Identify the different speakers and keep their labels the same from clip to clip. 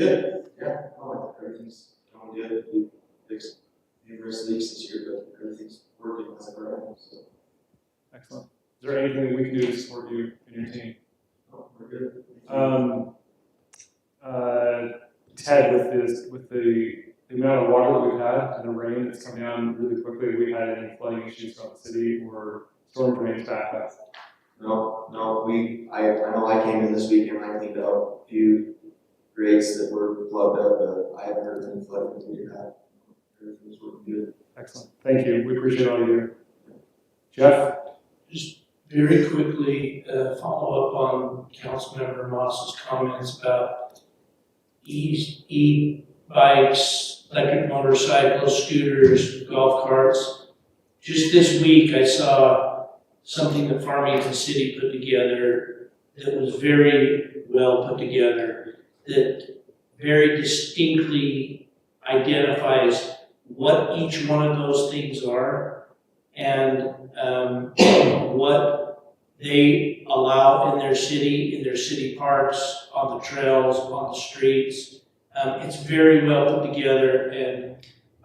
Speaker 1: Good, yeah, oh, everything's going good, we fixed numerous leaks this year, but everything's working as a brand, so,
Speaker 2: Excellent. Is there anything we can do to support you and your team?
Speaker 1: oh, we're good.
Speaker 2: Um, uh, Ted, with this, with the, the amount of water that we've had and the rain that's come down really quickly, we had any flooding issues throughout the city or storm drains back up?
Speaker 1: No, no, we, I, I know I came in this week and I cleaned out a few grates that were plugged up, but I haven't heard any flooding, we did have, everything's working good.
Speaker 2: Excellent. Thank you. We appreciate all you do. Jeff?
Speaker 3: Just very quickly, uh, follow up on Councilmember Moss's comments about e, e bikes, electric motorcycles, scooters, golf carts. Just this week, I saw something that Farmington City put together that was very well put together, that very distinctly identifies what each one of those things are. And um, what they allow in their city, in their city parks, on the trails, on the streets. Um, it's very well put together, and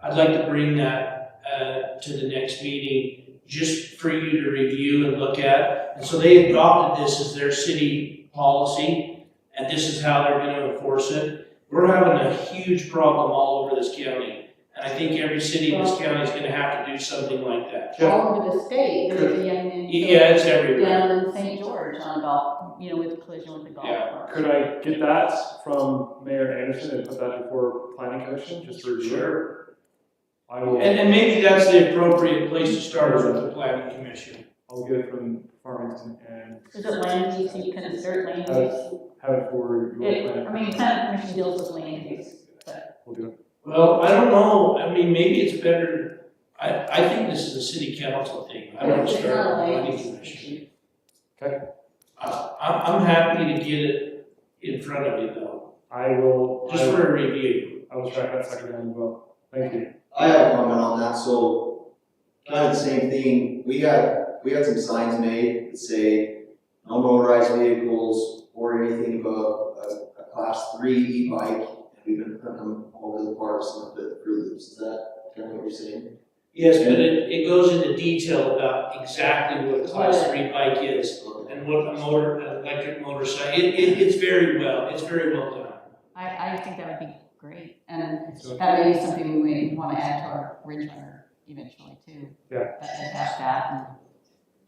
Speaker 3: I'd like to bring that uh, to the next meeting just for you to review and look at. And so they adopted this as their city policy, and this is how they're going to enforce it. We're having a huge problem all over this county, and I think every city in this county is going to have to do something like that.
Speaker 2: Jeff?
Speaker 4: all over the state, there was a young man. killed
Speaker 3: Yeah, it's everywhere.
Speaker 4: Down in St. George on a golf, you know, with a collision with a golf
Speaker 3: Yeah,
Speaker 4: cart.
Speaker 2: Could I get that from Mayor Anderson and put that before planning commission, just to review? Sure. I will.
Speaker 3: And, and maybe that's the appropriate place to start is with the planning commission.
Speaker 2: I'll get it from Farmington and
Speaker 4: Is it land use, you can assert land
Speaker 2: Uh,
Speaker 4: use?
Speaker 2: have it for your
Speaker 4: It- I
Speaker 2: plan.
Speaker 4: mean, kind of commission deals with land use, but
Speaker 2: We'll do it.
Speaker 3: Well, I don't know, I mean, maybe it's better, I, I think this is a city council thing, I don't
Speaker 4: it's not a
Speaker 3: start with the
Speaker 4: land
Speaker 3: planning
Speaker 4: use
Speaker 3: commission.
Speaker 4: issue.
Speaker 3: I, I'm, I'm happy to get it in front of you though,
Speaker 2: I will, I
Speaker 3: just
Speaker 2: will,
Speaker 3: for a review.
Speaker 2: I will track that second hand as well. Thank you.
Speaker 1: I have a comment on that, so kind of the same thing, we had, we had some signs made that say no motorized vehicles or anything above a, a class three e-bike, and we've been putting them all over the parks and up at through loops, is that kind of what you're saying?
Speaker 3: Yes, but it, it goes into detail about exactly what a class three bike is and what a motor, an electric motorcycle, it, it, it's very well, it's very well done.
Speaker 4: I, I think that would be great, and that may be something we may want to add to our ridge runner eventually too.
Speaker 2: Yeah.
Speaker 4: But they have that,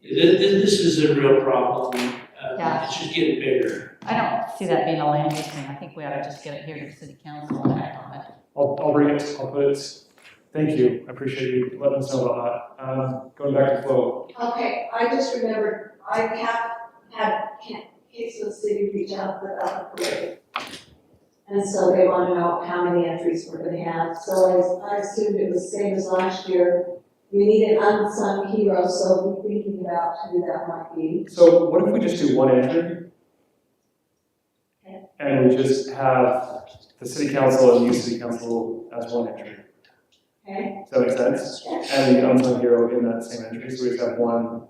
Speaker 4: and
Speaker 3: This, this is a real problem, uh,
Speaker 4: Yeah.
Speaker 3: it's just getting bigger.
Speaker 4: I don't see that being a land use thing, I think we ought to just get it here to the city council and act on it.
Speaker 2: I'll, I'll bring it, I'll put it. Thank you. I appreciate you letting us know about that. Um, going back to Flo.
Speaker 5: Okay, I just remembered, I have had Ca- Kansas City reach out about the parade. And so they want to know how many entries we're gonna have, so I, I assumed it was same as last year. We need an unsung hero, so we're thinking about who that might be.
Speaker 2: So what if we just do one entry?
Speaker 5: Okay.
Speaker 2: And we just have the city council and you city council as one entry.
Speaker 5: Okay.
Speaker 2: Does that make sense? And the unsung hero in that same entry, so we just have one.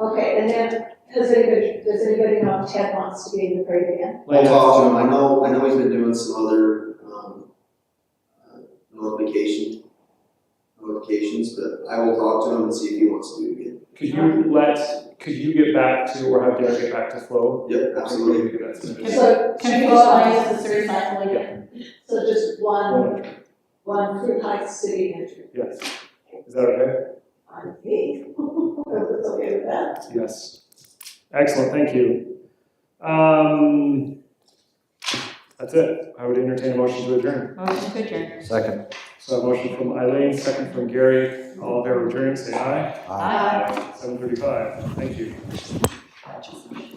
Speaker 5: Okay, and then, does anybody, does anybody know if Ted wants to be in the parade again?
Speaker 1: I'll talk to him, I know, I know he's been doing some other, um, uh, notification, notifications, but I will talk to him and see if he wants to do it again.
Speaker 2: Could you let, could you get back to, or have Derek get back to Flo?
Speaker 1: Yep, absolutely.
Speaker 2: Get that submitted.
Speaker 4: Can-
Speaker 5: So,
Speaker 4: Can we
Speaker 5: two
Speaker 4: go on
Speaker 5: sides,
Speaker 4: as a third cycle again?
Speaker 5: So just
Speaker 2: One
Speaker 5: one,
Speaker 2: entry,
Speaker 5: one Fruit Heights city entry.
Speaker 2: yes. Is that okay?
Speaker 5: on me. If it's okay with that.
Speaker 2: Yes. Excellent, thank you. Um, that's it. I would entertain a motion to adjourn.
Speaker 4: Motion to adjourn.
Speaker 6: Second.
Speaker 2: So a motion from Eileen, second from Gary. All in favor of adjourn, say aye.
Speaker 4: Aye.
Speaker 2: Seven thirty-five, thank you.
Speaker 4: Aye.